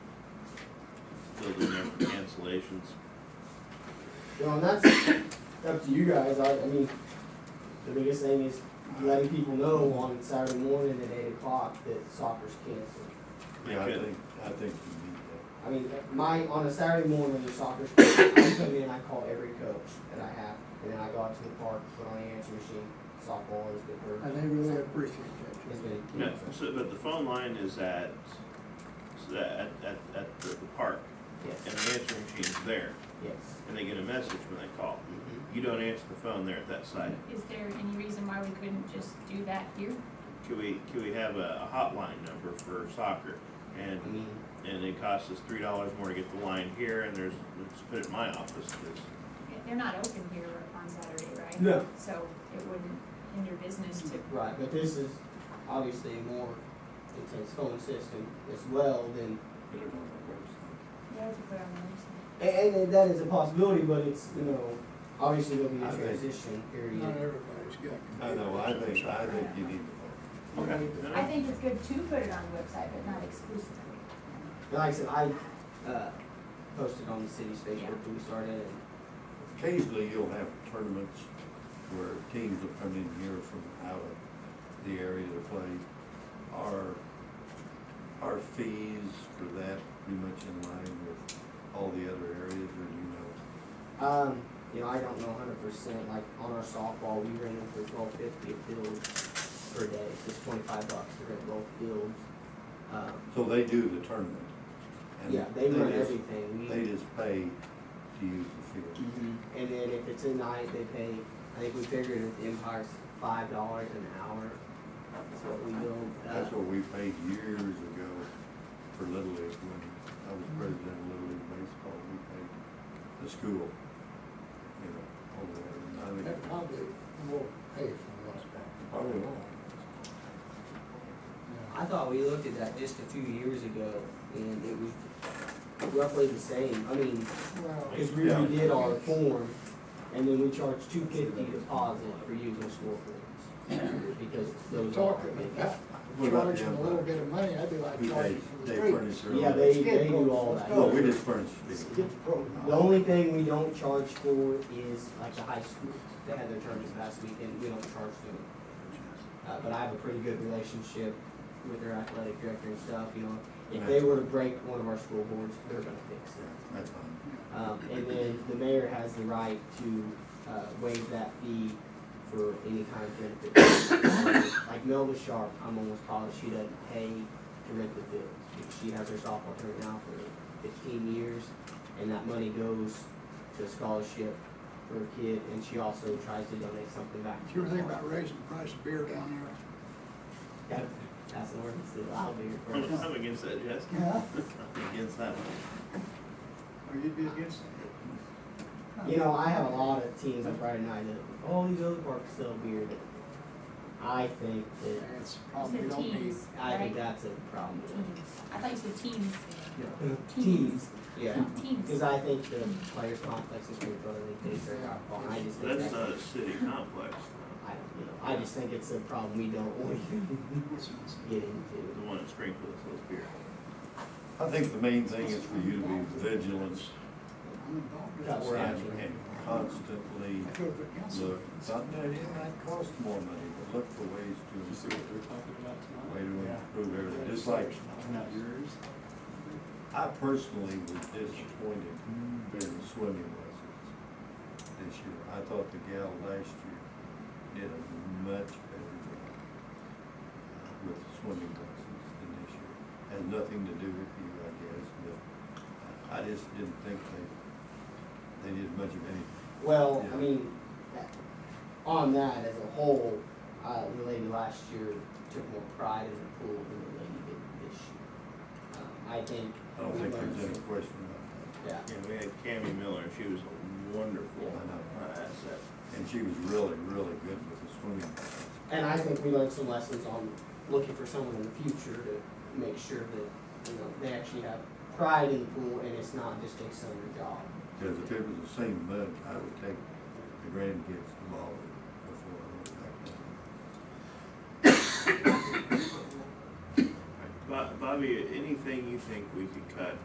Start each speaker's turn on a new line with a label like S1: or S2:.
S1: building in for cancellations.
S2: Well, and that's up to you guys, I, I mean, the biggest thing is letting people know on Saturday morning at eight o'clock that soccer's canceled.
S3: Yeah, I
S1: Okay.
S3: think, I think you need that.
S2: I mean, my, on a Saturday morning, the soccer's canceled, I come in, I call every coach that I have, and then I go out to the park, put on the answer machine, softball is good for.
S4: And they really appreciate that.
S2: It's been.
S1: Yeah, so, but the phone line is at, so at, at, at the the park, and
S2: Yes,
S1: the answering machine's there,
S2: yes.
S1: and they get a message when they call.
S2: Mhm.
S1: You don't answer the phone there at that site.
S5: Is there any reason why we couldn't just do that here?
S1: Could we, could we have a a hotline number for soccer? And,
S2: I mean,
S1: and it costs us three dollars more to get the line here, and there's, let's put it in my office, there's
S5: They're not open here on Saturday, right?
S2: No.
S5: So it wouldn't hinder business to,
S2: right, but this is obviously a more intense phone system as well than
S5: yeah, to put on the
S2: And, and, and that is a possibility, but it's, you know, obviously there'll be
S3: I
S2: a
S3: think-
S2: transition period.
S4: Not everybody's got.
S3: I know, I think, I think you need the
S1: Okay.
S5: website. I think it's good to put it on the website, but not exclusively.
S2: And like I said, I, uh, posted on the city's Facebook when we started and.
S3: phone. Occasionally, you'll have tournaments where teams will come in here from out of the area to play. Our, our fees for that pretty much in line with all the other areas, or do you know?
S2: Um, you know, I don't know hundred percent, like on our softball, we ran them for twelve fifty a field per day, it's just twenty-five bucks to rent both fields. Um,
S3: So they do the tournament. and
S2: yeah, they run
S3: just-
S2: everything, we.
S3: They just pay to use the field.
S2: Mhm. And then if it's at night, they pay, I think we figured at the Empire's five dollars an hour, that's what we build. uh,
S3: That's what we paid years ago for Little League, when I was president of Little League Baseball, we paid the school, you know, over there, and I
S4: That
S3: think,
S4: probably will pay for most part.
S3: probably wrong.
S2: I thought we looked at that just a few years ago, and it was roughly the same, I mean,
S4: Well,
S2: cause we redid our form, and then we charged two fifty deposit for using school forms. Because
S4: you're
S2: those are.
S4: talking about
S3: What about
S4: charging
S3: the
S4: a little bit of money, that'd be like
S3: Who they,
S4: charging for the
S3: they
S4: street.
S3: furnish their
S2: Yeah,
S3: own-
S2: they, they do all that.
S3: No, we just furnish the field.
S4: Get the program.
S2: The only thing we don't charge for is like the high school, they had their tournaments last weekend, we don't charge them. Uh, but I have a pretty good relationship with their athletic director and stuff, you know, if they were to break one of our school boards, they're gonna fix
S3: Yeah,
S2: it.
S3: That's fine.
S2: Um, and then the mayor has the right to, uh, waive that fee for any kind of benefit. Like Melba Sharp, I'm almost positive she doesn't pay to rent the fields. She has her softball tournament now for fifteen years, and that money goes to a scholarship for a kid, and she also tries to donate something back. to
S4: You were
S2: the
S4: thinking
S2: park.
S4: about raising the price of beer down
S2: That- That's an ordinance that I'll be
S1: I'm,
S2: referring to.
S1: I'm against that, Jess.
S4: there? Yeah.
S1: I'm against that one.
S4: Or you'd be against
S2: You know, I have a lot of teams on Friday night that, all these other parks sell beer, but I think
S4: it?
S2: that,
S4: It's
S5: You
S4: probably
S5: said
S4: don't need.
S5: teams,
S2: I think
S5: right?
S2: that's a problem.
S5: Teams. I thought you said teams.
S2: No.
S5: Teams.
S2: Yeah, because
S5: Teams.
S2: I think the players complex is pretty brotherly, they are out of I just think
S1: That's
S2: that's, I
S1: not a city complex,
S2: don't, you know, I just think it's a problem we don't want to get
S1: the
S2: into.
S1: one in Springfield that sells beer.
S3: I think the main thing is for you to be vigilant
S4: I'm involved with
S2: Cut
S4: this.
S2: where I-
S3: and and constantly
S4: I could have been council.
S3: look, something that it might cost more money, but look for ways to
S6: You see
S3: improve.
S6: what they're talking about
S3: way
S6: tonight?
S3: to improve everything, just like,
S6: Not yours?
S3: I personally was disappointed in swimming lessons this year. I thought the gal last year did a much better job uh, with swimming lessons than this year. Has nothing to do with you, I guess, but I just didn't think they, they did much of anything.
S2: Well, I
S3: Yeah.
S2: mean, that- on that as a whole, uh, the lady last year took more pride in the pool than the lady did this year. Um, I think.
S3: I don't
S2: we
S3: think
S2: learned
S3: there's any
S2: some-
S3: question about
S2: Yeah,
S1: And we had Cammy Miller, and she was a wonderful
S3: I know.
S1: uh, asset.
S3: that. And she was really, really good with the swimming lessons.
S2: and I think we learned some lessons on looking for someone in the future to make sure that, you know, they actually have pride in the pool and it's not just a summer job.
S3: Because if it was the same mud, I would take the grandkids to Bali before I went back down.
S1: Bo- Bobby, anything you think we could cut